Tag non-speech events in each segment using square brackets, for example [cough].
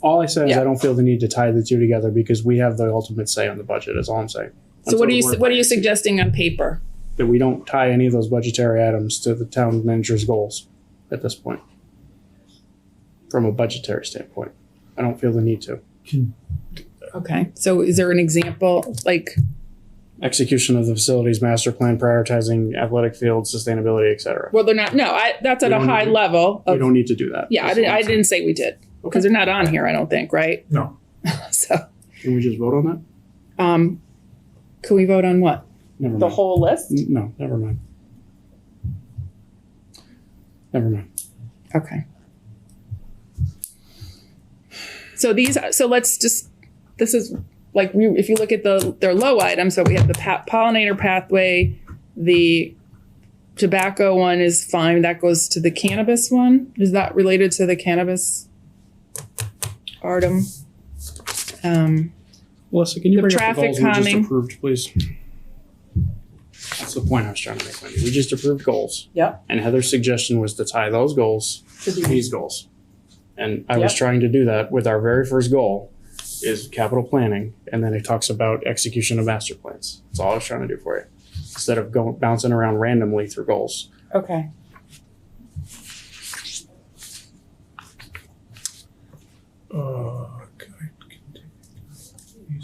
All I said is Yeah. I don't feel the need to tie the two together because we have the ultimate say on the budget. Is all I'm saying. So Until what are the you board what are you votes. suggesting on paper? That we don't tie any of those budgetary items to the town manager's goals at this point. From a budgetary standpoint, I don't feel the need to. Okay. So is there an example like Execution of the facilities master plan, prioritizing athletic fields, sustainability, et cetera. well they're not no, I that's at We a don't high need- level We of don't need to do that. Yeah, I That's didn't all I'm I didn't say we did Okay. because they're not on here, I don't think, right? [laughs] No. So saying. Can we just vote on that? um can we vote on what? Never The mind. whole list? N- No, never mind. Never mind. Okay. So these, are- so let's just, this is like, we- if you look at the, their low items, so we have the pa- pollinator pathway, the tobacco one is fine, that goes to the cannabis one, is that related to the cannabis? Artem? Um, Melissa, can you The bring up the traffic goals we just calming. approved, please? That's the point I was trying to make, Wendy. We just approved goals. Yep. And Heather's suggestion was to tie those goals to these goals. And I was Yep. trying to do that with our very first goal is capital planning, and then it talks about execution of master plans. That's all I was trying to do for you. Instead of going, bouncing around randomly through goals. okay. Uh, can I-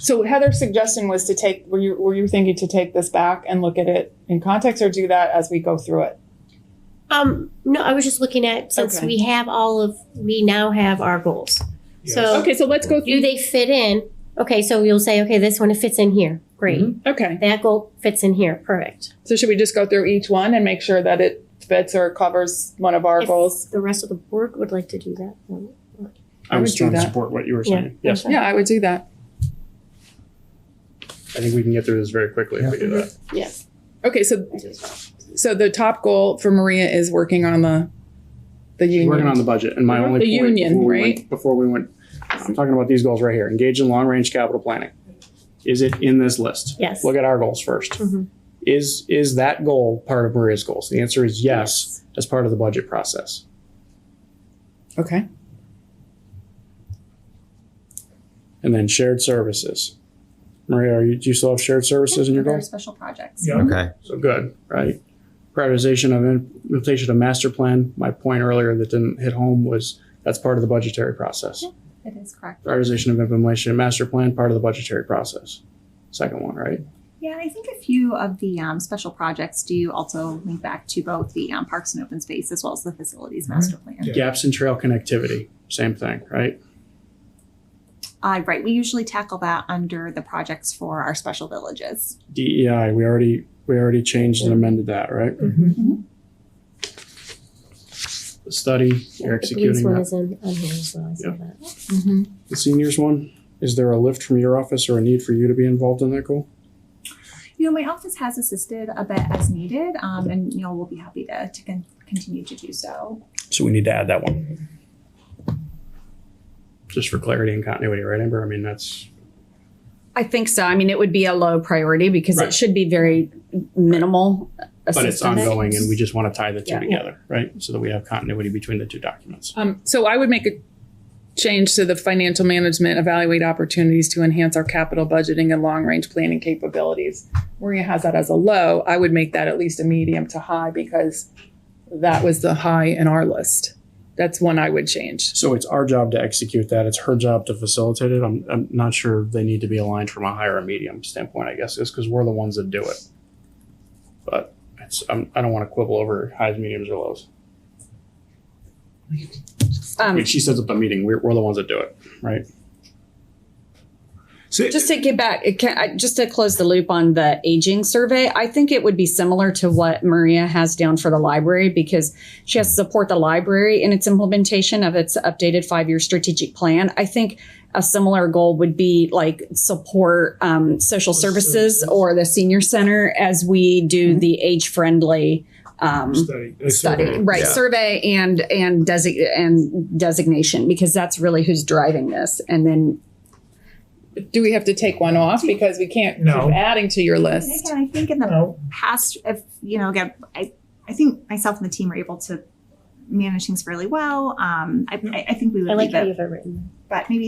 So Heather's suggestion was to take, were you, were you thinking to take this back and look at it in context or do that as we go through it? Um, no, I was just looking at, since Okay. we have all of, we now have our goals. So Okay, so let's go do through, they fit in? Okay, so you'll say, okay, this one fits in here. Great. Mm-hmm. okay. That goal fits in here. Perfect. So should we just go through each one and make sure that it fits or covers one of our If goals? The rest of the board would like to do that. I I was would do trying to that. support what you were Yeah. saying. Yes, Okay. Yeah, I would do that. I think we can get through this very quickly if we do that. Yes. Okay, so so the top goal for Maria is working on the the union. Working on the budget, and my Mhm. only The point union, before we right? went, before we went, I'm talking about these goals right here. Engage in long-range capital planning. Is it in this list? Yes. Look at our goals first. Mm-hmm. Mhm. Is is that goal part of Maria's goals? The answer is yes, as part of the budget process. okay. And then shared services. Maria, are you, do you still have shared services in your Other goals? Special projects. Yeah. Okay. So good, right? Prioritization of implementation of master plan. My point earlier that didn't hit home was that's part of the budgetary process. It is correct. prioritization of implementation master plan part of the budgetary process second one right Yeah, I think a few of the um, special projects do also link back to both the um, parks and open space as well as the facilities master plan. Mm-hmm. Yeah. gaps in trail connectivity same thing right Uh, right, we usually tackle that under the projects for our special villages. dei we already we already changed and amended that right Mm-hmm. Mm-hmm. the study you're The police executing one that. is in, on here as well. I saw Yep. that. Mm-hmm. the seniors one is there a lift from your office or a need for you to be involved in that goal You know, my office has assisted a bit as needed, um, and you know we'll be happy to to con- continue to do so. so we need to add that one just for clarity and continuity right amber i mean that's I think so. I mean, it would be a low priority because Right. it should be very minimal but it's assistance. ongoing and we just want to tie the two Yeah. together right so that we have continuity between the two documents Um, so I would make a change to the financial management, evaluate opportunities to enhance our capital budgeting and long range planning capabilities. Maria has that as a low. I would make that at least a medium to high because that was the high in our list. That's one I would change. So it's our job to execute that. It's her job to facilitate it. I'm, I'm not sure they need to be aligned from a higher or medium standpoint, I guess, is because we're the ones that do it. But it's, I'm, I don't want to quibble over highs, mediums, or lows. I mean, Um, she sets up a meeting. We're, we're the ones that do it, right? So just to get back, it can, I- just to close the loop on the aging survey, I think it would be similar to what Maria has down for the library because she has to support the library in its implementation of its updated five-year strategic plan. I think a similar goal would be like support um, social services or the senior center as we do Mm-hmm. the age-friendly um, study. uh, study survey. right Yeah. survey and and desi- and designation because that's really who's driving this and then Do we have to take one off because we can't No. keep adding to your And list? again, I think in the No. past, if you know, again, I, I think myself and the team were able to manage things really well. Um, I, I, I think we would I like leave how it. you have it written. but maybe